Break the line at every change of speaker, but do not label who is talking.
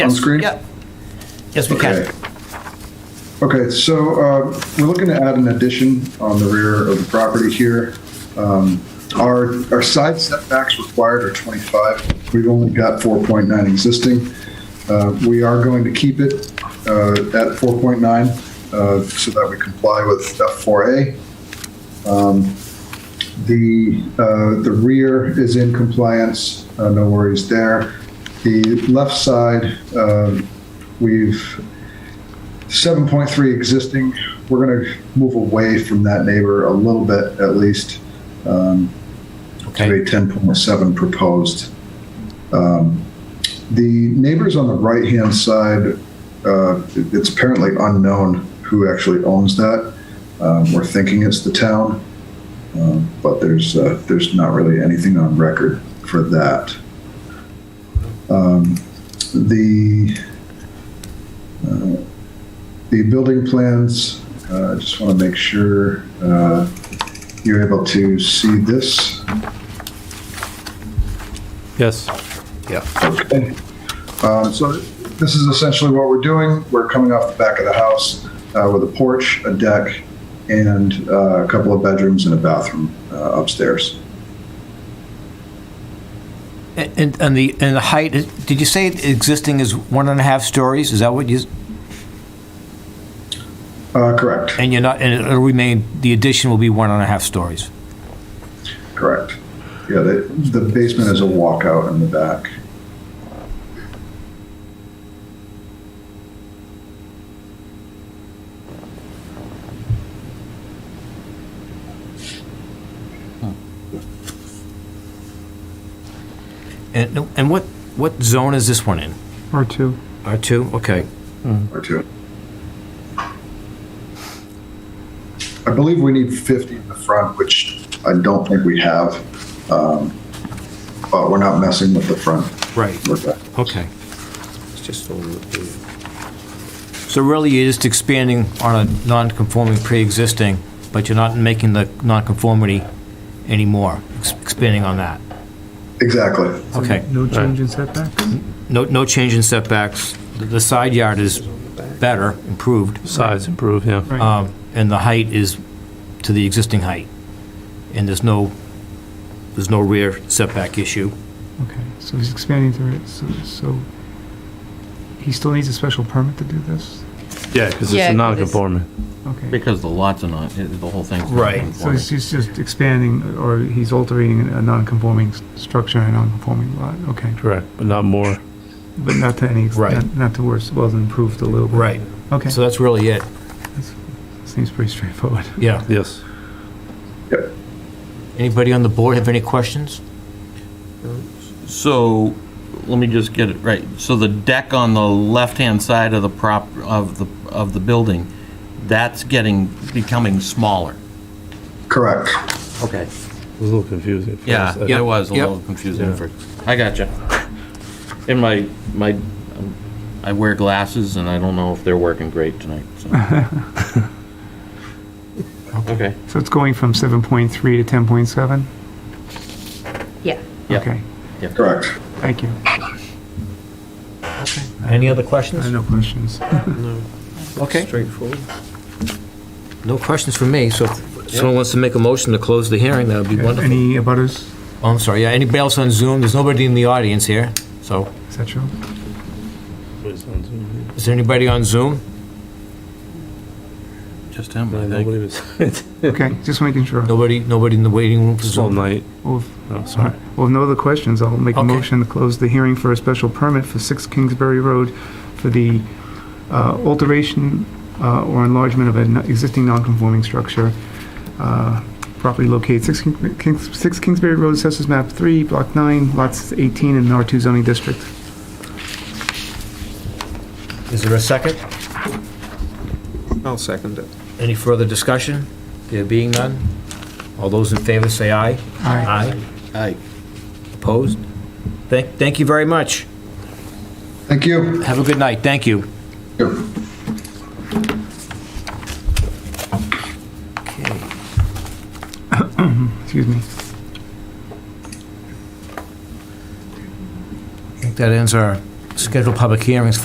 on
Yes,
screen?
Yep. Yes, we
Okay.
can.
Okay, so uh, we're looking to add an addition on the rear of the property here. Um, Our, our side setbacks required are 25. We've only got 4.9 existing. Uh, We are going to keep it uh, at 4.9 uh, so that we comply with F4A. Um, The, uh, the rear is in compliance, uh, no worries there. The left side, um, we've 7.3 existing, we're going to move away from that neighbor a little bit at least um, to
Okay.
a 10.7 proposed. Um, The neighbors on the right-hand side, uh, it- it's apparently unknown who actually owns that. Um, We're thinking it's the town, um, but there's, uh, there's not really anything on record for that. Um, The uh, the building plans, uh, I just want to make sure uh, you're able to see this.
Yes.
Okay. Um, So this is essentially what we're doing. We're coming off the back of the house uh, with a porch, a deck, and uh, a couple of bedrooms and a bathroom uh, upstairs.
And, and the, and the height, is- did you say existing is one and a half stories? Is that what you,
Uh, Correct,
and you're not, and it'll remain, the addition will be one and a half stories?
correct. Yeah, the the basement is a walkout in the back.
And, and what, what zone is this one in?
Or two.
R2? Okay.
or two. I believe we need 50 in the front, which I don't think we have. Um, But we're not messing with the front.
Right.
We're back.
Okay. It's just a little- So really, you're just expanding on a non-conforming pre-existing, but you're not making the non-conformity anymore, ex- expanding on that?
Exactly.
Okay.
No change in setbacks?
No, no change in setbacks. The- The side yard is better, improved,
Size improve, yeah.
um, and the height is to the existing height. And there's no, there's no rear setback issue.
Okay, so he's expanding through it, so, so he still needs a special permit to do this?
Yeah, because it's
Yeah,
a
'cause it's-
non-conforming.
Okay,
Because the lots are not, it- the whole thing's. not
Right.
so he's
conforming.
he's just expanding, or he's altering a non-conforming s- structure in a non-conforming lot, okay.
Correct, but not more.
But not to any, ex-
Right.
not- not to worse, well, then improved a little bit. Okay,
So that's really it,
seems pretty straightforward.
yeah.
Yes.
Anybody on the board have any questions?
So, let me just get it right. So the deck on the left-hand side of the prop, of the, of the building, that's getting, becoming smaller.
Correct.
Okay.
It was a little confusing. at first.
Yeah,
I-
it was a
uh, Yep.
little confusing at first. I gotcha. In my, my, um, I wear glasses and I don't know if they're working great tonight, so. Okay,
So it's going from seven point three to ten point seven?
Yeah.
Yep.
Okay,
Correct.
thank you.
Any other
I have
questions?
no questions.
Okay. Straightforward. No questions from me, so if someone wants to make a motion to close the hearing, that would be wonderful.
Any abutters,
Oh, I'm sorry, yeah, anybody else on Zoom? There's nobody in the audience here, so,
et cetera?
is there anybody on Zoom?
just him,
I
I
don't
think.
believe it's,
Okay, just making sure.
Nobody, nobody in the waiting room for
it's all
Zoom?
night.
Well, if-
No, sorry.
Well, if no other questions, I'll make a
Okay.
motion to close the hearing for a special permit for 6 Kingsbury Road for the uh, alteration uh, or enlargement of an existing non-conforming structure. Uh, Property located 6 King- Kings- 6 Kingsbury Road, Assessors Map 3, Block 9, Lots 18 in the R2 zoning district.
Is there a second?
I'll second it.
Any further discussion? There being none? All those in favor say aye. Aye.
Aye.
Opposed? Thank, thank you very much.
Thank you.
Have a good night, thank you.
Excuse me.
I think that ends our schedule public hearings